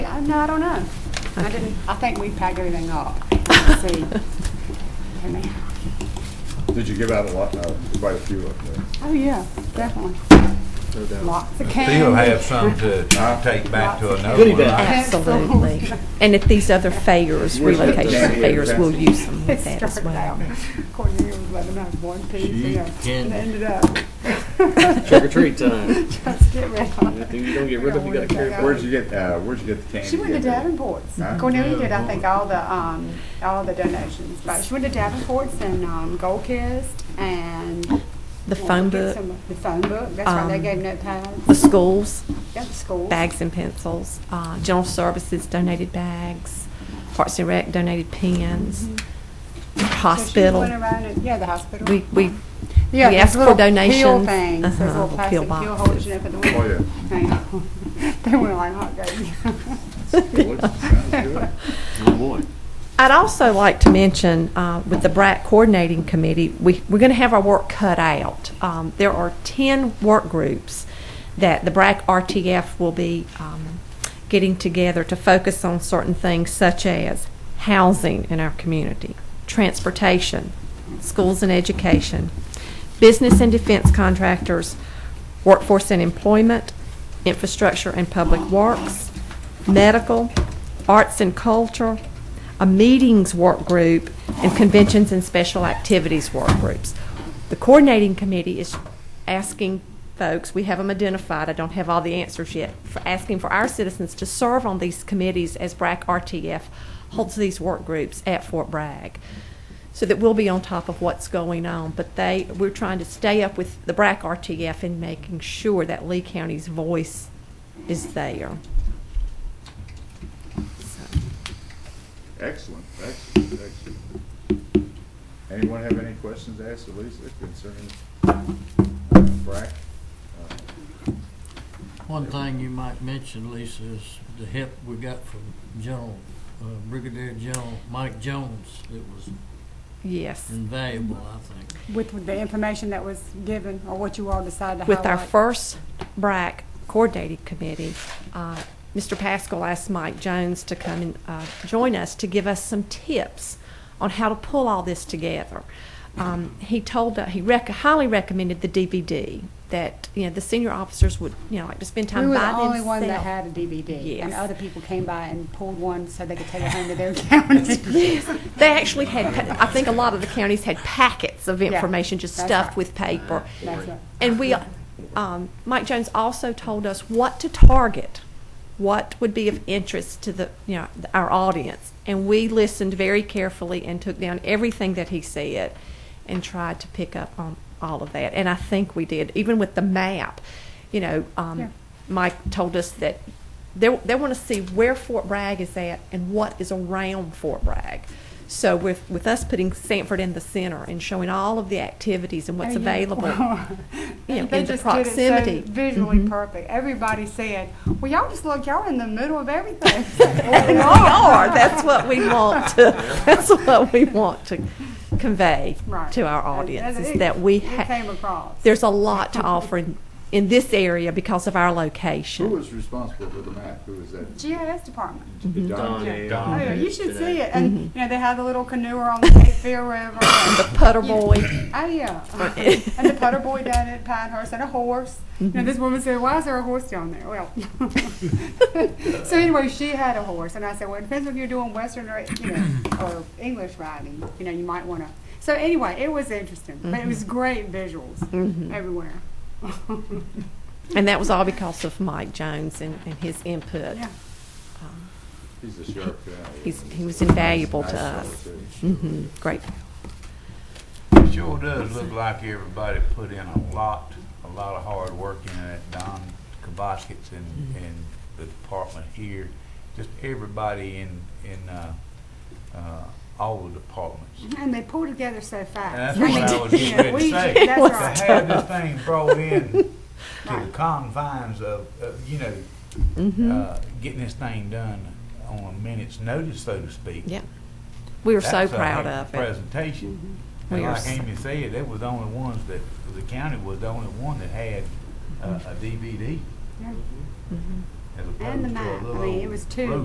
No, I don't know. I didn't, I think we packed everything up. Let's see. Wait a minute. Did you give out a lot, uh, quite a few up there? Oh, yeah, definitely. No doubt. Lots of candy. Still have some to take back to another Goodie one. bag. I- Absolutely. And at these other fairs, Where's the relocation daddy fairs, of we'll that? use them It with that as started out, well. Cornelia was letting out one piece, Gee, you know, and candy. ended up. Trick or treat time. Just get rid of If it. you don't get rid of it, you gotta carry it. Where'd you get, uh, where'd you get the candy? She went to at there? Davenport's. Huh? Cornelia did, I think, all the, um, all the donations. But she went to Davenport's and, um, Gold Kissed and. The Well, phone get book, some- The phone book, that's right, they Um, gave notepads. the schools, Yeah, the school. bags and pencils, uh, general services donated bags, Parks and Rec donated pens, So she hospital. went around and, yeah, the hospital. We, we, Yeah, we those asked for little Pill donations. things, those Uh-huh, little the plastic pill pill holders, boxes. you know, for the Oh, winter. yeah. Oh, yeah. They went like hot Sounds Oh, boy. I'd also like to mention, uh, with the BRAC Coordinating Committee, we, we're going to have our work cut out. Um, there are 10 work groups that the BRAC RTF will be um, getting together to focus on certain things such as housing in our community, transportation, schools and education, business and defense contractors, workforce and employment, infrastructure and public works, medical, arts and culture, a meetings work group, and conventions and special activities work groups. The coordinating committee is asking folks, we have them identified, I don't have all the answers yet, for asking for our citizens to serve on these committees as BRAC RTF holds these work groups at Fort Bragg so that we'll be on top of what's going on. But they, we're trying to stay up with the BRAC RTF and making sure that Lee County's voice is there. So, Excellent, excellent, excellent. Anyone have any questions to ask Elisa concerning uh, BRAC? Uh, One thing you might mention, Lisa, is the help we got from General, uh, Brigadier General Mike Jones. It was Yes. invaluable, I think. With the information that was given, or what you all decided to With our highlight. first BRAC coordinating committee, uh, Mr. Pascal asked Mike Jones to come and uh, join us to give us some tips on how to pull all this together. Um, He told, he rec- highly recommended the DVD, that, you know, the senior officers would, you know, like to spend We time were by the themselves. only one that had a DVD, and Yes. other people came by and pulled one so they could take it home to their county. They actually had, pa- I think a lot of the counties had packets of information just that's stuffed right. with paper. That's right. And we, um, Mike Jones also told us what to target, what would be of interest to the, you know, th- our audience. And we listened very carefully and took down everything that he said and tried to pick up on all of that. And I think we did, even with the map. You know, Yeah. um, Mike told us that they, they want to see where Fort Bragg is at and what is around Fort Bragg. So with, with us putting Sanford in the center and showing all of the activities and what's Oh, yeah. available, you know, They in the just did it so proximity. visually Mhm. perfect. Everybody said, "Well, y'all just look, y'all in the middle of everything." Well, We are, that's what we want to, that's what we want to convey Right. to our And- audience, and is it- that we It came have, across. there's a lot to offer in, in this area because of our Who location. was responsible for the map? Who was that? GIS department. Mm-hmm. Don. Don. Mm-hmm. Oh, yeah, you should see it. And Mhm. you know, they had the little canoe on the Cape Fear River. and- The putter boy, Oh yeah, and the putter boy down at Pinehurst and a horse. Now this woman said, "Why is there a horse down there?" Well, so anyway, she had a horse, and I said, "Well, it depends if you're doing Western or you know or English riding. You know, you might want to." So anyway, it was interesting, but it was great visuals Mm-hmm. Mm-hmm. everywhere. and that was all because of Mike Jones and, and his input. Yeah. Um, He's a sharp guy. He's, he was invaluable Nice to fellow, us. too. hmm great. Sure does look like everybody put in a lot, a lot of hard work in it. Don Kabaskets and, and the department here, just everybody in, in, uh, uh, all the departments. And they pulled together so fast. That's what I was just Yeah, going to we- say. that's right. To have this thing brought in to the Right. confines of, of, you know, uh, getting this thing done on a minute's notice, so to speak. Yeah. We were so That's uh, a heck proud of a it. Mm-hmm. Presentation. We And are like s- Amy said, they were the only ones that, the county was the only one that had uh, a DVD Yeah. as And the opposed to a map. I little mean, it was old two. road